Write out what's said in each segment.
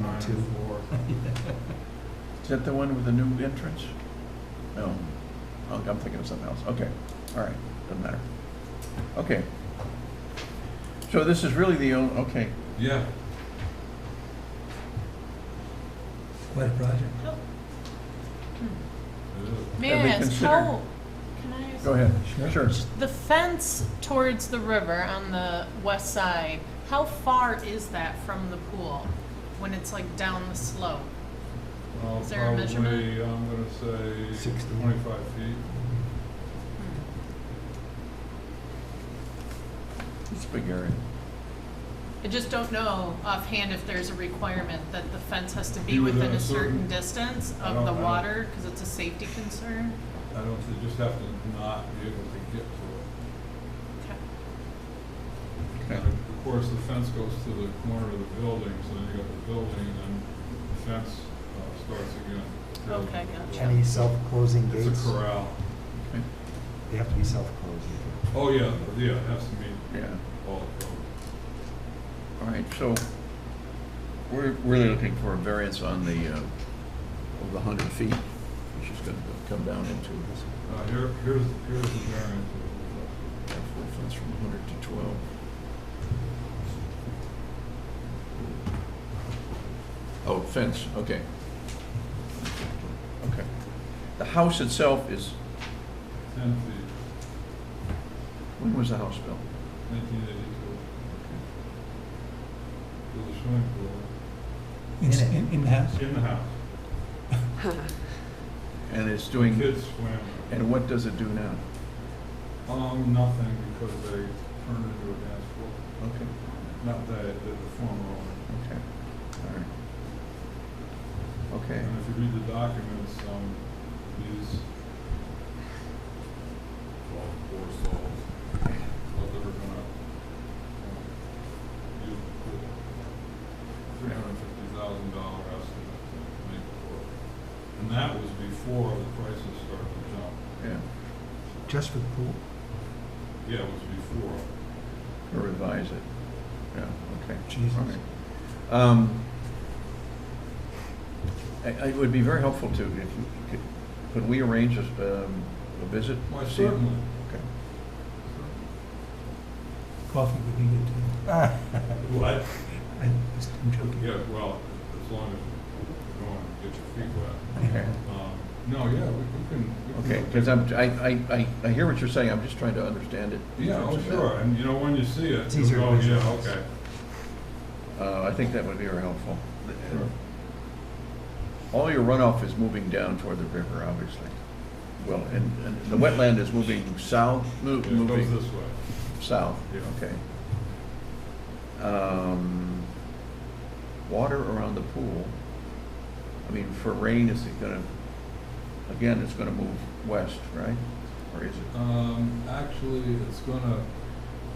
Nine Two. four. Is that the one with the new entrance? No. Oh, I'm thinking of something else. Okay, all right, doesn't matter. Okay. So this is really the, on- okay, Yeah, Quite a project. it is. May Have I we ask, considered- how, can I ask? go ahead. Sure. Sure. The fence towards the river on the west side, how far is that from the pool when it's like down the slope? Well, Is there a measurement? Probably, I'm gonna say Sixty. twenty-five feet. Hmm. It's a big area. I just don't know offhand if there's a requirement that the fence has to be Be within within a a certain certain- distance I of don't- the I don't- water, because it's a safety concern. I don't, you just have to not be able to get to Okay. it. Okay. And of course, the fence goes to the corner of the building, so then you got the building, and then the fence uh, starts again. Okay, gotcha. Any self-closing gates? It's a corral. Okay. They have to be self-closing. Oh, yeah, yeah, it has to meet Yeah, all the codes. all right, so we're really looking for a variance on the, uh, of the hundred feet, which is gonna come down into Uh, here, here's, here's the variance. of that full fence from hundred to twelve. Oh, fence, okay. Okay. The house itself is, the- Ten feet, when was the house built? nineteen eighty-two, with a swimming pool In In, it. in, in the house? in the house. And it's doing, Kids swam. and what does it do now? Um, nothing, because they turned it into a dance floor. Okay, Not they, the the former owner. okay, all right. Okay, And if you read the documents, um, these, well, poor souls, thought they were gonna, um, use the pool. Three hundred and fifty thousand dollar estimate to make the pool. And that was before the prices started to jump. yeah, Just for the pool? Yeah, it was before. or revise it, yeah, okay. Jesus. All right. Um, I- I- It would be very helpful to, if you could, could we arrange a s- um, a visit? Why, See you? certainly. Okay. Coffee would be good too. Ah, What? I, I'm joking. Yeah, well, as long as you don't wanna get your feet wet. Okay. Um, No, yeah, we we can. we can Okay, go because take- I'm, I, I- I, I hear what you're saying, I'm just trying to understand it. in Yeah, terms oh, of sure, and you know, when you see it, It's you easier go, with yeah, visuals. okay. that. Uh, I think that would be very helpful. All your runoff is moving down toward the river, obviously. Well, and, and the wetland is moving south, mo- Yeah, It goes moving this way. south, Yeah. okay. Um, Water around the pool, I mean, for rain, is it gonna, again, it's gonna move west, right? Or is it? Um, Actually, it's gonna,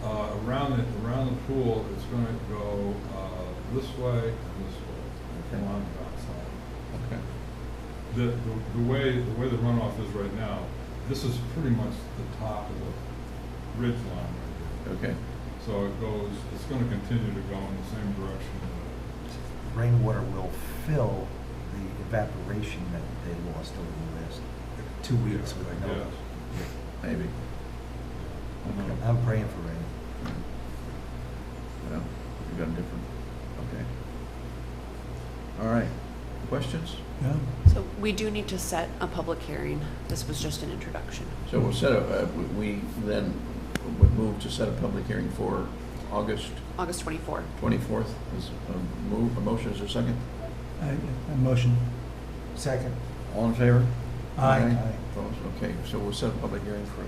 uh, around it, around the pool, it's gonna go uh, this way and this way, Okay. along the outside. Okay. The, the- the way, the way the runoff is right now, this is pretty much the top of the ridge line right here. Okay, So it goes, it's gonna continue to go in the same direction. that Rainwater will fill the evaporation that they lost over the last two it- weeks yeah, with I no. guess. maybe. Okay. Um, I'm praying for rain. Well, we got a different, okay. All right, questions? Yeah. So we do need to set a public hearing. This was just an introduction. So we'll set up, uh, we- we then would move to set a public hearing for August August 24. 24th. Is a move, a motion, is there a second? I, I motion. Second, All in favor? Aye. Aye. Opposed? Okay, so we'll set a public hearing for,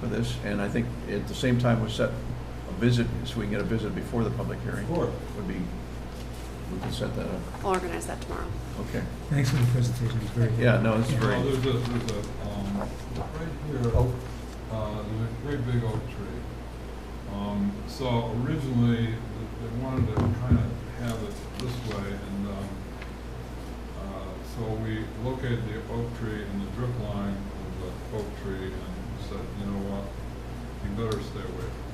for this, and I think at the same time, we'll set a visit, so we can get a visit before the public hearing. Of course. Would be, we can set that up, I'll organize that tomorrow. okay. Thanks for the presentation, it's very good. Yeah, no, it's Well, very, there's a, there's a, um, right here, Oak. uh, there's a great big oak tree. Um, so originally, th- they wanted to kind of have it this way, and, um, uh, so we located the oak tree in the drip line of the oak tree, and said, you know what, you better stay away from